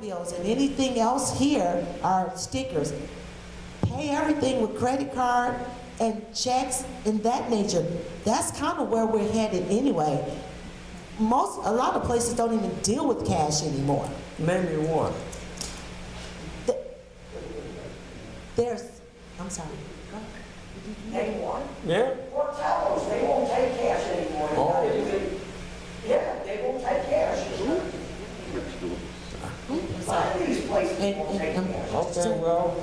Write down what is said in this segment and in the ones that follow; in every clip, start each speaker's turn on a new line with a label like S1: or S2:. S1: Bills and anything else here are stickers. Pay everything with credit card and checks and that nature. That's kind of where we're headed anyway. Most, a lot of places don't even deal with cash anymore.
S2: Name me one.
S1: Th- There's, I'm sorry.
S3: anymore.
S2: Yeah?
S3: Hotels, they won't take cash anymore.
S2: Oh.
S3: Yeah, they won't take cash.
S1: I'm
S3: A lot
S1: sorry.
S3: of these places
S1: And- um,
S3: won't take
S1: and-
S3: cash.
S2: Okay, well,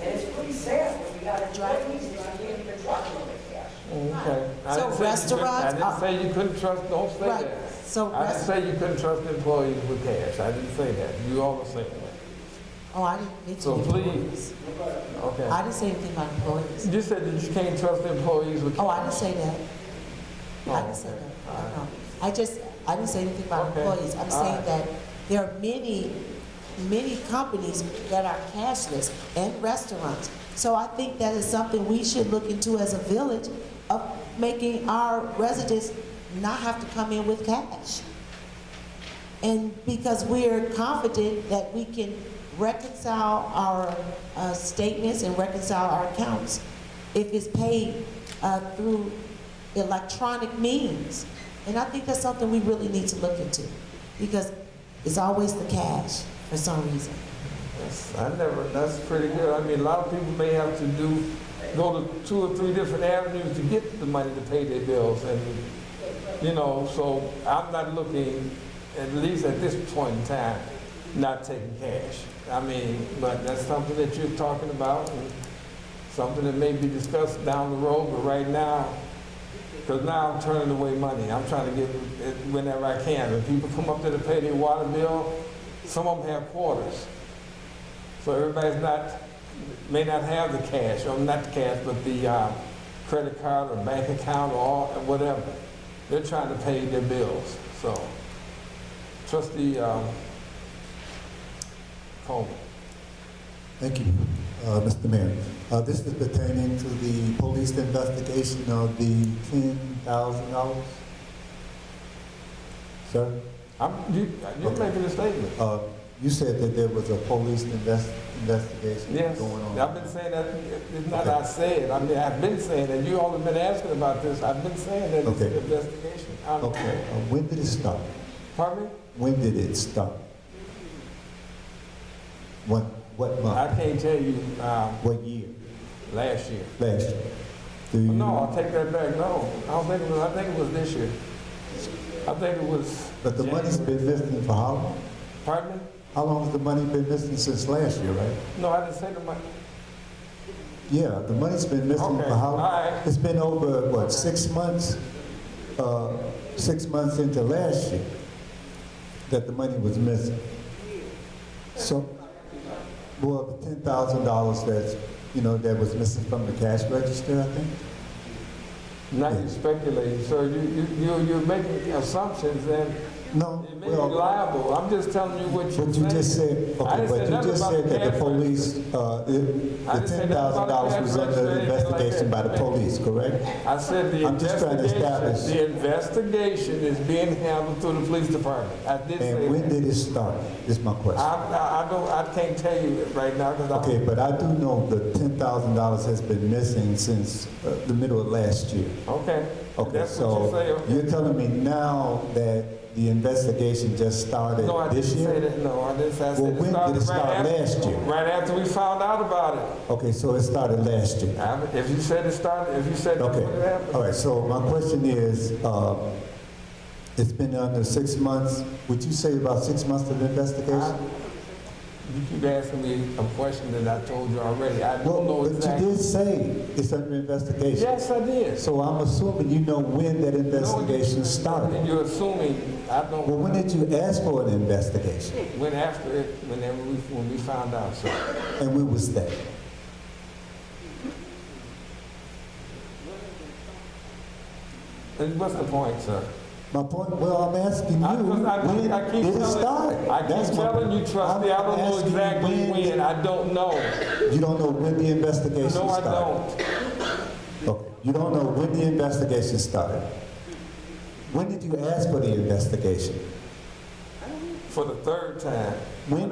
S3: And it's pretty sad when you got employees that can't even trust them with cash.
S2: okay. I
S1: So
S2: didn't say you couldn't-
S1: restaurants are-
S2: I didn't say you couldn't trust, don't say
S1: Right,
S2: that.
S1: so
S2: I didn't
S1: rest-
S2: say you couldn't trust employees with cash. I didn't say that. You all are saying that.
S1: Oh, I didn't mention
S2: So please.
S1: employees. I
S2: Okay.
S1: didn't say anything about employees.
S2: You said that you can't trust employees with cash.
S1: Oh, I didn't say that. I didn't say
S2: okay.
S1: that. I know. I just, I didn't say anything about
S2: Okay.
S1: employees. I'm
S2: All
S1: saying
S2: right.
S1: that there are many, many companies that are cashless and restaurants. So I think that is something we should look into as a village of making our residents not have to come in with cash. And because we're confident that we can reconcile our uh, statements and reconcile our accounts if it's paid uh, through electronic means. And I think that's something we really need to look into because it's always the cash for some reason.
S2: That's- I never, that's pretty good. I mean, a lot of people may have to do, go to two or three different avenues to get the money to pay their bills and, you know, so I'm not looking, at least at this point in time, not taking cash. I mean, but that's something that you're talking about and something that may be discussed down the road, but right now, because now I'm turning away money. I'm trying to get it whenever I can. When people come up there to pay their water bill, some of them have quarters. So everybody's not, may not have the cash, or not the cash, but the uh, credit card or bank account or all- or whatever. They're trying to pay their bills, so. Trustee um, Coleman.
S4: Thank you, uh, Mr. Mayor. Uh, This is pertaining to the police investigation of the $10,000. Sir,
S2: I'm, you, you're making a statement.
S4: uh, you said that there was a police invest- investigation
S2: Yes,
S4: going on.
S2: I've been saying that, it's not I said, I mean, I've been saying that, you all have been asking about this, I've been saying that it's an
S4: Okay.
S2: investigation. I'm-
S4: Okay, uh, when did it stop?
S2: Pardon me?
S4: When did it stop? What, what
S2: I
S4: month?
S2: can't tell you, um,
S4: What year?
S2: last year.
S4: Last year? Do you-
S2: No, I'll take that back, no, I don't think it was, I think it was this year. I think it was.
S4: But the money's
S2: January.
S4: been missing for how long?
S2: Pardon me?
S4: How long has the money been missing since last year, right?
S2: No, I didn't say the money,
S4: Yeah, the money's been missing
S2: Okay,
S4: for how?
S2: all right.
S4: It's been over, what, six months? Uh, Six months into last year that the money was missing. So, well, the ten thousand dollars that's, you know, that was missing from the cash register, I think?
S2: now you're speculating, sir, you, you, you- you're making assumptions and
S4: No,
S2: it may be
S4: well,
S2: liable, I'm just telling you what you
S4: what you just said,
S2: I
S4: okay,
S2: didn't say
S4: but
S2: nothing
S4: you just
S2: about
S4: said
S2: the
S4: that the
S2: cash
S4: police, uh, the
S2: I
S4: the
S2: didn't say nothing about
S4: ten thousand
S2: the
S4: dollars
S2: cash
S4: was
S2: register or
S4: under
S2: anything like
S4: investigation by
S2: that.
S4: the police, correct?
S2: I said the
S4: I'm just trying to
S2: investigation,
S4: establish-
S2: the investigation is being handled through the police department. I did
S4: And
S2: say
S4: when
S2: that.
S4: did it start, is my
S2: I,
S4: question.
S2: I I don't, I can't tell you right now because I.
S4: Okay, but I do know the ten thousand dollars has been missing since uh, the middle of last year.
S2: Okay. If
S4: Okay,
S2: That's what you say.
S4: so
S2: okay.
S4: you're telling me now that the investigation just started
S2: No, I
S4: this
S2: didn't say
S4: year?
S2: that, no, I didn't, I said.
S4: Well, when
S2: started
S4: did it
S2: right
S4: start
S2: after-
S4: last year?
S2: Right after we found out about it.
S4: Okay, so it started last year.
S2: I- If you said it started, if you said that's what
S4: Okay, all
S2: happened.
S4: right, so my question is, uh, it's been under six months, would you say about six months of
S2: I-
S4: investigation?
S2: You keep asking me a question that I told you already. I
S4: Well,
S2: don't know
S4: But you
S2: exactly.
S4: did say it's under investigation.
S2: Yes, I did.
S4: So I'm assuming you know when that
S2: No, you-
S4: investigation started.
S2: You're assuming, I don't.
S4: Well, when did you ask for an investigation?
S2: Went after it whenever we, when we found out, sir.
S4: And when was that?
S2: And what's the point, sir?
S4: My point, well, I'm asking you,
S2: I- 'cause I keep-
S4: when
S2: I keep
S4: did it
S2: telling-
S4: start?
S2: I
S4: That's
S2: keep
S4: my
S2: telling you,
S4: point.
S2: trustee, I
S4: I'm-
S2: don't
S4: I'm
S2: know
S4: asking you
S2: exactly when, I don't know.
S4: You don't know when the investigation
S2: No, I
S4: started?
S2: don't.
S4: Okay, you don't know when the investigation started? When did you ask for the investigation?
S2: For the third time.
S4: When